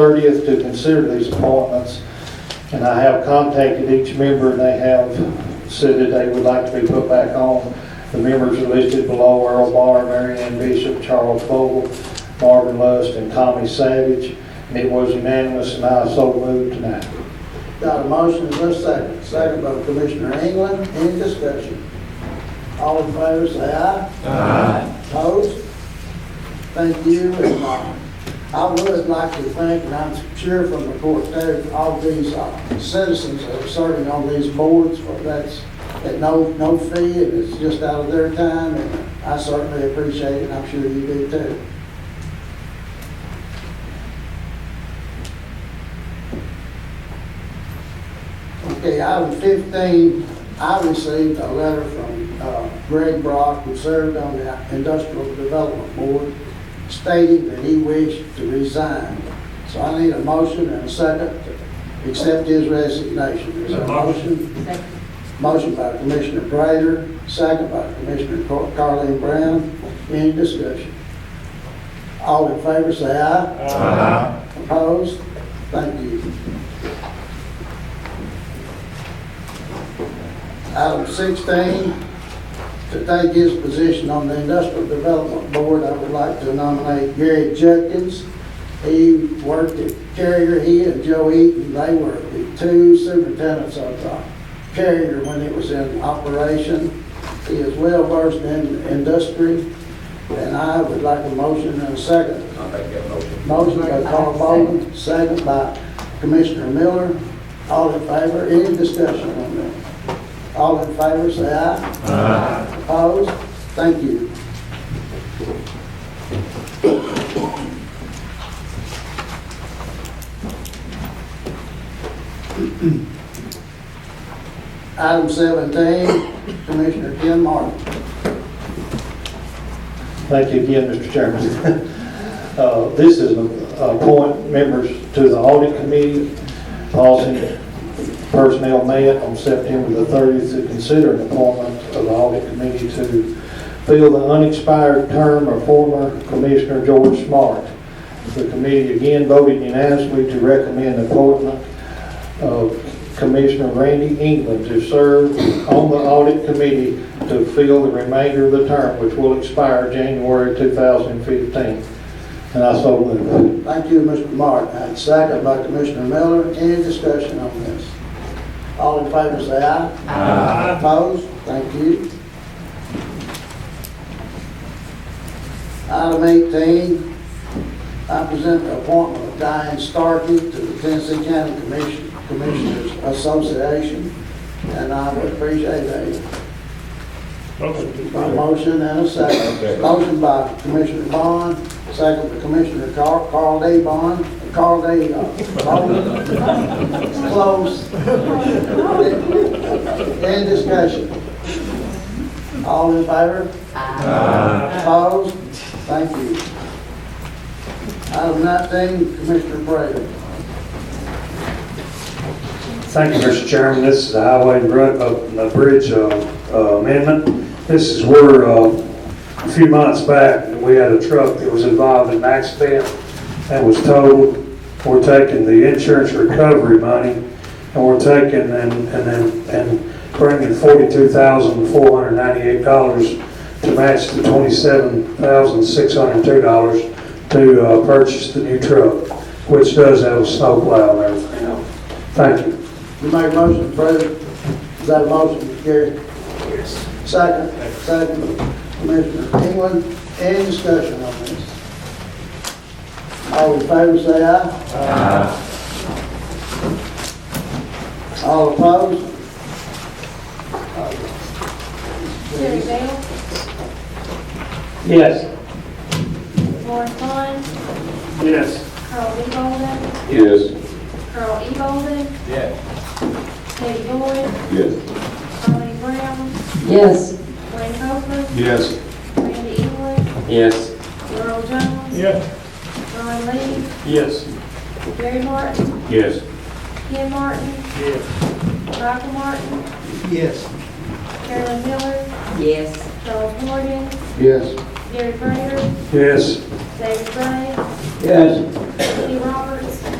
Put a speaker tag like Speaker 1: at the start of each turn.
Speaker 1: 30th to consider these appointments. And I have contacted each member, and they have said that they would like to be put back on. The members are listed below, Earl Barr, Mary Ann Bishop, Charles Vogel, Marvin Lust, and Tommy Savage. And it was unanimous, and I so moved tonight.
Speaker 2: Got a motion, is there a second? Second by Commissioner England, any discussion? All in favor, say aye. Aye. Opposed? Thank you, and uh, I would like to thank, and I'm sure from the court there, all these uh, citizens that are serving on these boards, for that's, at no, no fee, and it's just out of their time, and I certainly appreciate it, and I'm sure you do too. Okay, item 15, I received a letter from uh, Greg Brock, who served on the Industrial Development Board, stating that he wished to resign. So I need a motion and a second to accept his resignation. Is there a motion?
Speaker 3: Second.
Speaker 2: Motion by Commissioner Prater, second by Commissioner Car- Carleen Brown. Any discussion? All in favor, say aye. Opposed? Thank you. Item 16, to take his position on the Industrial Development Board, I would like to nominate Gary Judkins. He worked at Carrier, he and Joe Eaton, they were the two superintendents of uh, Carrier when it was in operation. He is well versed in industry, and I would like a motion and a second
Speaker 4: I'll make that motion.
Speaker 2: Motion by Carl Bolden, second by Commissioner Miller. All in favor, any discussion on that? All in favor, say aye. Aye. Opposed? Thank you. Item 17, Commissioner Ken Martin.
Speaker 1: Thank you again, Mr. Chairman. Uh, This is uh, appoint members to the audit committee. Policy personnel met on September the 30th to consider an appointment of the audit committee to fill the unexpired term of former Commissioner George Smart. The committee again voted unanimously to recommend appointment of Commissioner Randy England to serve on the audit committee to fill the remainder of the term, which will expire January 2015. And I so move.
Speaker 2: Thank you, Mr. Martin. And second by Commissioner Miller. Any discussion on this? All in favor, say aye. Aye. Opposed? Thank you. Item 18, I present the appointment of Diane Starkey to the Tennessee County Commission- Commissioners Association, and I would appreciate that. A motion and a second. Motion by Commissioner Bond, second by Commissioner Carl, Carl D. Bond, Carl D. uh, Bond. Close. Any discussion? All in favor? Aye. Opposed? Thank you. Item nineteen, Commissioner Prater.
Speaker 5: Thank you, Mr. Chairman. This is the Highway and Bru- uh, uh, Bridge uh, uh, Amendment. This is where, uh, a few months back, we had a truck that was involved in an accident and was told, we're taking the insurance recovery money and we're taking and, and then, and bringing forty-two thousand, four hundred ninety-eight dollars to match the twenty-seven thousand, six hundred two dollars to uh, purchase the new truck, which does have a snowplow and everything else. Thank you.
Speaker 2: You make a motion, President. Is that a motion, Gary? Yes. Second, second, Commissioner England, any discussion on this? All in favor, say aye. Aye. All opposed?
Speaker 3: Terry Bell,
Speaker 1: Yes.
Speaker 3: Lauren Vaughn,
Speaker 5: Yes.
Speaker 3: Carl E. Bolden,
Speaker 4: Yes.
Speaker 3: Carl E. Bolden,
Speaker 4: Yes.
Speaker 3: Teddy Boyd,
Speaker 4: Yes.
Speaker 3: Carly Brown,
Speaker 6: Yes,
Speaker 3: Wayne Copeland,
Speaker 4: Yes.
Speaker 3: Randy England,
Speaker 4: Yes.
Speaker 3: Earl Jones,
Speaker 5: Yes.
Speaker 3: Ron Lee,
Speaker 5: Yes.
Speaker 3: Gary Martin,
Speaker 4: Yes.
Speaker 3: Ken Martin, Michael Martin,
Speaker 2: Yes.
Speaker 3: Carolyn Miller,
Speaker 6: yes,
Speaker 3: Charles Morgan,
Speaker 2: Yes.
Speaker 3: Gary Prater,
Speaker 5: Yes.
Speaker 3: David Gray,
Speaker 4: Yes.
Speaker 3: Kenny Roberts,